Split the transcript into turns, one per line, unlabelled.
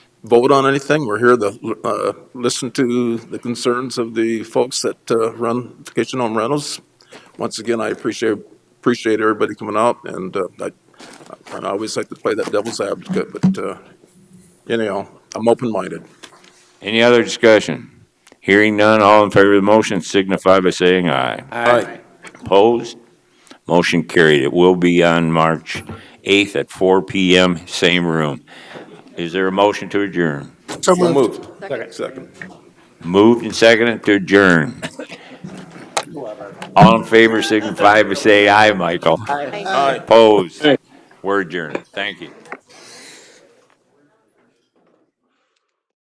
vote on anything. We're here to uh, listen to the concerns of the folks that uh, run vacation home rentals. Once again, I appreciate, appreciate everybody coming out, and uh, I, and I always like to play that devil's advocate, but uh, anyhow, I'm open-minded.
Any other discussion? Hearing none, all in favor of the motion signify by saying aye.
Aye.
Opposed? Motion carried. It will be on March 8th at 4 PM, same room. Is there a motion to adjourn?
So moved. Second.
Moved and seconded to adjourn. All in favor signify by saying aye, Michael.
Aye.
Opposed? We're adjourned. Thank you.